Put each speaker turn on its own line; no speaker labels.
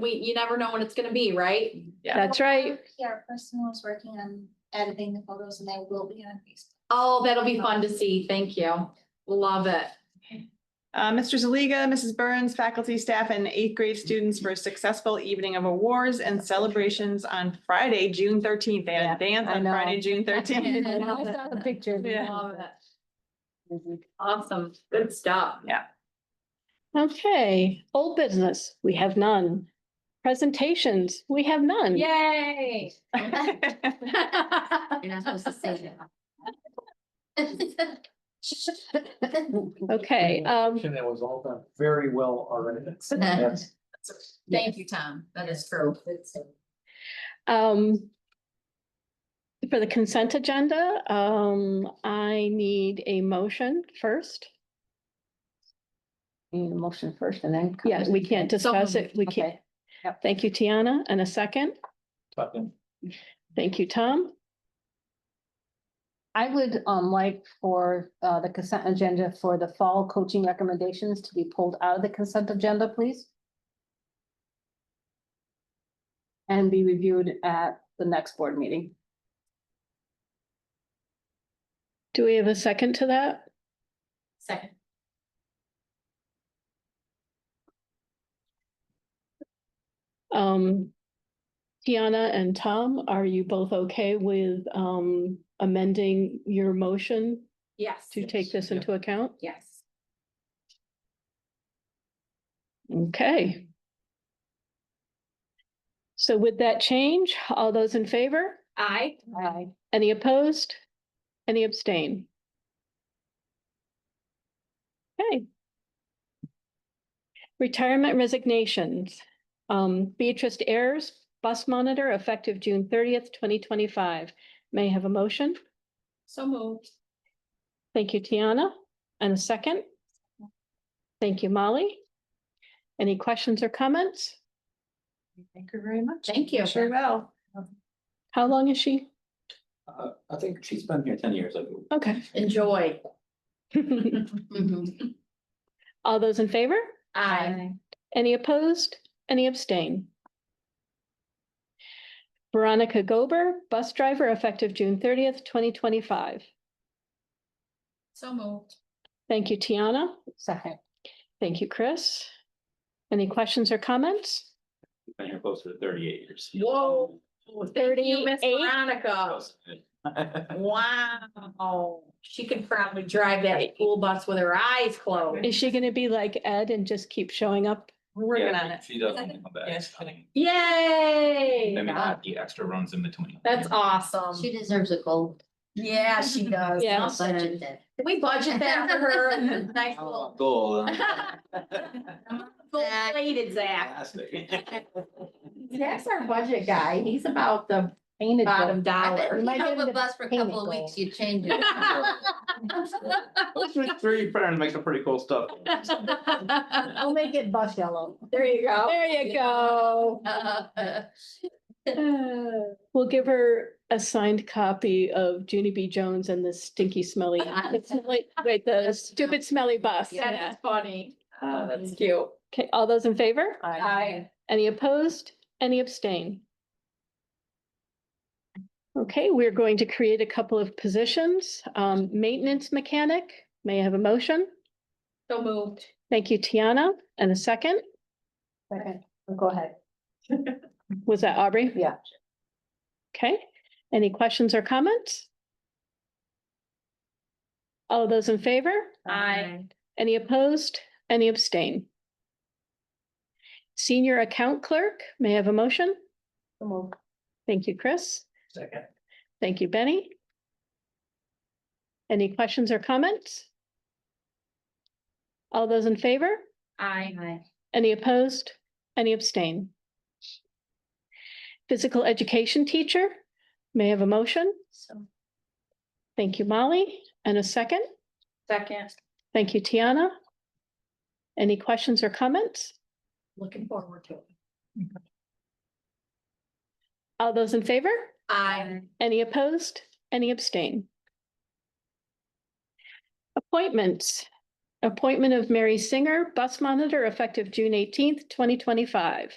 we, you never know when it's gonna be, right?
That's right.
Our person was working on editing the photos and they will be on Facebook.
Oh, that'll be fun to see. Thank you. Love it.
Uh, Mr. Zaliga, Mrs. Burns, faculty, staff, and eighth grade students for a successful evening of awards and celebrations on Friday, June thirteenth. They had a dance
I
on
know.
Friday, June thirteenth.
Yeah.
I saw the picture.
Yeah.
Love it. Awesome. Good stuff.
Okay, old business, we have none. Presentations, we have none.
Yay.
You're not supposed to say
Okay, um,
And it was all done very well already.
that.
Thank you, Tom. That is true.
um. For the consent agenda, um, I need a motion first.
Need a motion first and then.
Yeah, we can't discuss it. We can't.
Okay. Yep.
Thank you, Tiana. And a second. Thank you, Tom.
I would um like for uh the consent agenda for the fall coaching recommendations to be pulled out of the consent agenda, please. And be reviewed at the next board meeting.
Do we have a second to that?
Second.
Um. Tiana and Tom, are you both okay with um amending your motion
Yes.
to take this
Yep.
into account?
Yes.
Okay. So with that change, all those in favor?
I.
Aye.
Any opposed? Any abstain? Okay. Retirement resignations. Um, Beatrice Ayers, bus monitor, effective June thirtieth, twenty twenty-five. May I have a motion?
So moved.
Thank you, Tiana. And a second? Thank you, Molly. Any questions or comments?
Thank you very much.
Thank you.
Sure will.
How long is she?
Uh, I think she's been here ten years, I believe.
Okay.
Enjoy.
All those in favor?
I.
Any opposed? Any abstain? Veronica Gober, bus driver, effective June thirtieth, twenty twenty-five.
So moved.
Thank you, Tiana.
Second.
Thank you, Chris. Any questions or comments?
Been here close to thirty-eight years.
Whoa. Thank you, Miss
38.
Veronica. Wow. She could probably drive that school bus with her eyes closed.
Is she gonna be like Ed and just keep showing up?
We're working on
Yeah,
it.
she does want to come
Yeah,
back.
she's gonna-
Yay.
Maybe not the extra runs in between.
That's awesome.
She deserves a gold.
Yeah, she does.
Yeah.
Something. Can we budget that for her? Nice
Oh,
little.
Goal.
Belated Zach.
uh, Fantastic.
Zach's our budget guy. He's about the
Painted.
bottom
I bet
dollar.
you
might
have
get
a
into
bus for a
payment
couple of
goal.
weeks, you change it.
Those are Three, trying to make some pretty cool stuff.
I'll make it bus yellow.
There you go.
There you go. We'll give her a signed copy of Junie B. Jones and the stinky smelly, wait, the stupid smelly bus.
That's funny. Oh, that's cute.
Okay, all those in favor?
I,
Any opposed? Any abstain? Okay, we're going to create a couple of positions. Um, maintenance mechanic, may I have a motion?
so moved.
Thank you, Tiana. And a second,
Second. Oh, Go ahead.
was that Aubrey?
Yeah.
Okay, any questions or comments? All those in favor?
I,
Any opposed? Any abstain? Senior account clerk, may I have a motion?
So moved.
Thank you, Chris.
Second.
Thank you, Benny. Any questions or comments? All those in favor?
I,
Any opposed? Any abstain? Physical education teacher, may I have a motion?
So,
Thank you, Molly. And a second?
second,
Thank you, Tiana. Any questions or comments?
looking forward to it.
All those in favor?
I,
Any opposed? Any abstain? Appointments. Appointment of Mary Singer, bus monitor, effective June eighteenth, twenty twenty-five.